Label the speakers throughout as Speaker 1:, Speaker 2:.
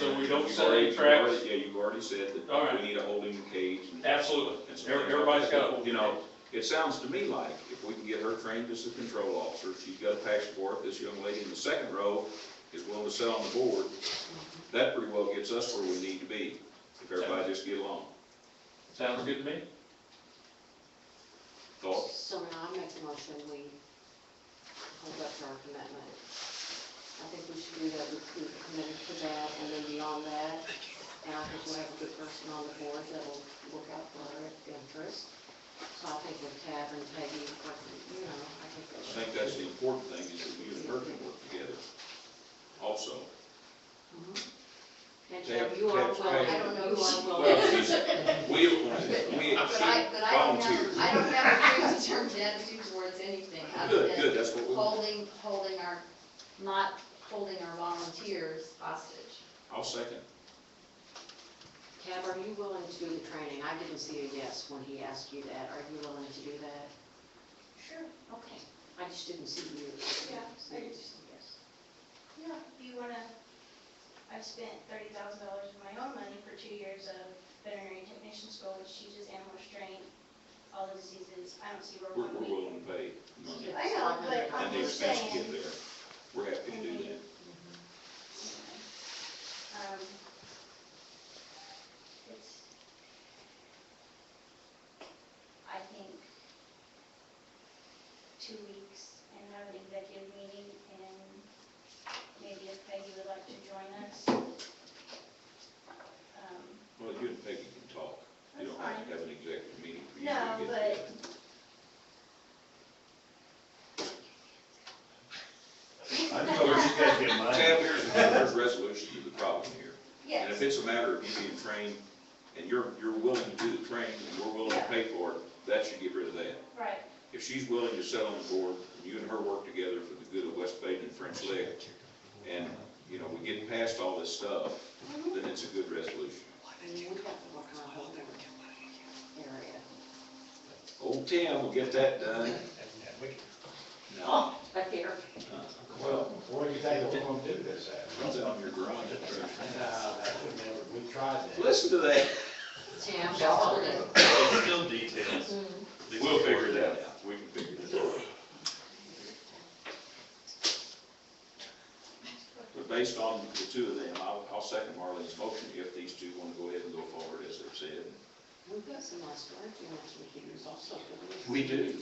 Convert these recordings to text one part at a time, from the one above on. Speaker 1: don't
Speaker 2: You've
Speaker 1: set
Speaker 2: already-
Speaker 1: any
Speaker 2: you've
Speaker 1: tracks.
Speaker 2: already- Yeah, you've already said
Speaker 1: All
Speaker 2: that
Speaker 1: right.
Speaker 2: we need a holding cage. and-
Speaker 1: Absolutely.
Speaker 2: and some
Speaker 1: Every-
Speaker 2: things like
Speaker 1: Everybody's
Speaker 2: that.
Speaker 1: got a holding
Speaker 2: You know, it sounds to me like if we can get her trained as a control officer, she's got a passport, this young lady in the second row is willing to sit on the board, that pretty well gets us where we need to be, if everybody just get along.
Speaker 1: Sounds good to me.
Speaker 2: Thought?
Speaker 3: So now I make a motion, we hold up to our commitment. I think we should do that, we we committed to that, and then beyond that, and I think we'll have a good person on the board that will look out for our interest. So I think with Tab and Peggy, like, you know, I think
Speaker 2: I
Speaker 3: that should.
Speaker 2: think that's the important thing, is that you and her can work together also.
Speaker 3: Mhm. And Tab, you are
Speaker 2: Tab-
Speaker 3: well, I
Speaker 2: Tab-
Speaker 3: don't know, you
Speaker 2: Well,
Speaker 3: are well.
Speaker 2: she's, we appointed, we,
Speaker 3: But
Speaker 2: she
Speaker 3: I, but I don't have,
Speaker 2: volunteered.
Speaker 3: I don't have a predetermined attitude towards anything, other
Speaker 2: Good,
Speaker 3: than
Speaker 2: good, that's what we,
Speaker 3: holding, holding our, not holding our volunteers hostage.
Speaker 2: I'll second.
Speaker 3: Cab, are you willing to do the training? I didn't see a yes when he asked you that. Are you willing to do that?
Speaker 4: Sure,
Speaker 3: Okay. I just didn't see you.
Speaker 4: Yeah, I did.
Speaker 3: yes.
Speaker 4: yeah, if you wanna, I've spent thirty thousand dollars of my own money for two years of veterinary technician school, which teaches animal restraint, all the diseases, I don't see where
Speaker 2: We're,
Speaker 4: one
Speaker 2: we're willing
Speaker 4: week.
Speaker 2: to pay money
Speaker 4: I know, but
Speaker 2: and
Speaker 4: I'm
Speaker 2: the
Speaker 4: just
Speaker 2: expense to get
Speaker 4: saying,
Speaker 2: there. We're happy to do that.
Speaker 4: um, it's, I think, two weeks and have an executive meeting, and maybe if Peggy would like to join us. um,
Speaker 2: Well, you and Peggy can talk. You
Speaker 4: That's
Speaker 2: don't have
Speaker 4: fine.
Speaker 2: to have an executive meeting for you
Speaker 4: No,
Speaker 2: to get
Speaker 4: but.
Speaker 5: I know where you guys get
Speaker 2: together.
Speaker 5: mine.
Speaker 2: Tab, here's, here's resolution to the problem here. And if
Speaker 4: Yes,
Speaker 2: it's a matter of you being trained, and you're, you're willing to do the training, and we're willing to
Speaker 4: Yeah.
Speaker 2: pay for it, that should get rid of that.
Speaker 4: right,
Speaker 2: If she's willing to sit on the board, and you and her work together for the good of West Baden and French Lick, and, you know, we get past all this stuff,
Speaker 4: Mm-hmm.
Speaker 2: then it's a good resolution.
Speaker 3: I mean, we have to work on a whole different area.
Speaker 2: Old Tim will get that done. No.
Speaker 3: Oh, back there.
Speaker 5: Well, what do you think we're gonna do this at?
Speaker 2: Runs out of your garage.
Speaker 5: Nah,
Speaker 6: Uh,
Speaker 5: that would never, we tried that.
Speaker 2: Listen to that.
Speaker 3: Tim, hold it.
Speaker 7: Still details.
Speaker 2: We'll figure that out. We can figure that out. But based on the two of them, I'll, I'll second Marlene's motion if these two want to go ahead and go forward as they've said.
Speaker 3: We've got some nice work, you know, to we could use also. couldn't
Speaker 2: We do.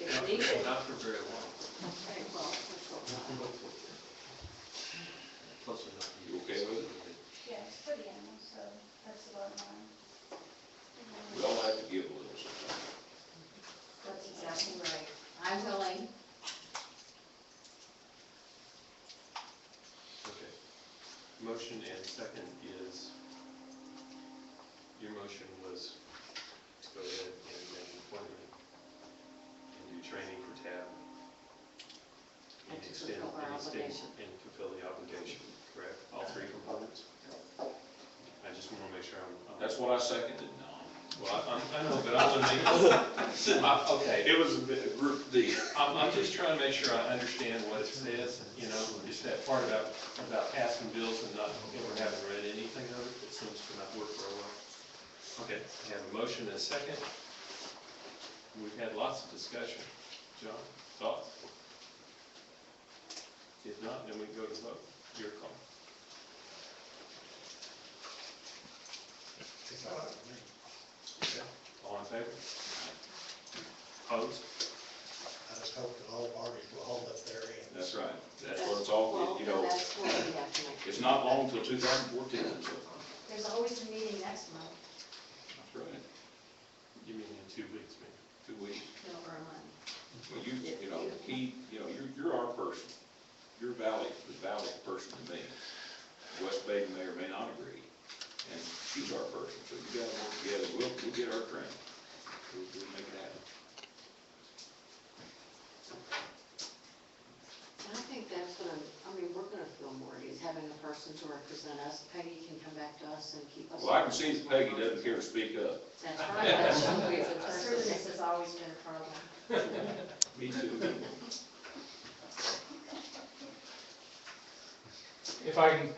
Speaker 3: If we need it.
Speaker 7: Not for very long.
Speaker 3: Okay, well, let's go.
Speaker 7: Close enough.
Speaker 2: You okay with it?
Speaker 4: yes, for the animals, so that's the bottom line.
Speaker 2: We all have to give a little sometimes.
Speaker 3: That's exactly right. I'm willing.
Speaker 7: Okay. Motion and second is, your motion was to go ahead and make an appointment and do training for TAB.
Speaker 3: And to
Speaker 7: extend-
Speaker 3: fulfill our
Speaker 7: and extend-
Speaker 3: obligation.
Speaker 7: And fulfill the obligation, correct? All three components? I just want to make sure I'm. I'm-
Speaker 2: That's what I seconded,
Speaker 7: Well, I, I'm- I know, but I want to make, I- okay,
Speaker 2: It was a bit of group D.
Speaker 7: I'm, I'm just trying to make sure I understand what it says, you know, just that part about, about passing bills and not, ever having read anything of it, it seems to not work very well. Okay, I have a motion and a second. We've had lots of discussion. John, thoughts? If not, then we can go to vote. Your call. Okay, All in favor? Opposed?
Speaker 6: I just hope that all parties will hold up their end.
Speaker 2: That's right. That's
Speaker 3: That's-
Speaker 2: what it's all,
Speaker 3: Well,
Speaker 2: you
Speaker 3: then
Speaker 2: know,
Speaker 3: that's what we have to make.
Speaker 2: it's not long till 2014, so.
Speaker 3: There's always a meeting next month,
Speaker 2: That's right.
Speaker 7: You mean in two weeks, maybe?
Speaker 2: Two weeks.
Speaker 3: no, or a month.
Speaker 2: Well, you, you know, he, you know, you're, you're our person, you're valid, the valid person to me. West Baden may or may not agree, and she's our person, so you gotta work together, we'll, we'll get our train. We'll, we'll make it happen.
Speaker 3: And I think that's gonna, I mean, we're gonna feel more at ease having a person to represent us. Peggy can come back to us and keep us.
Speaker 2: Well, I can see that Peggy doesn't care to speak up.
Speaker 3: That's right, that's true, it's a person, this has always been a problem.
Speaker 2: Me too.
Speaker 8: If I can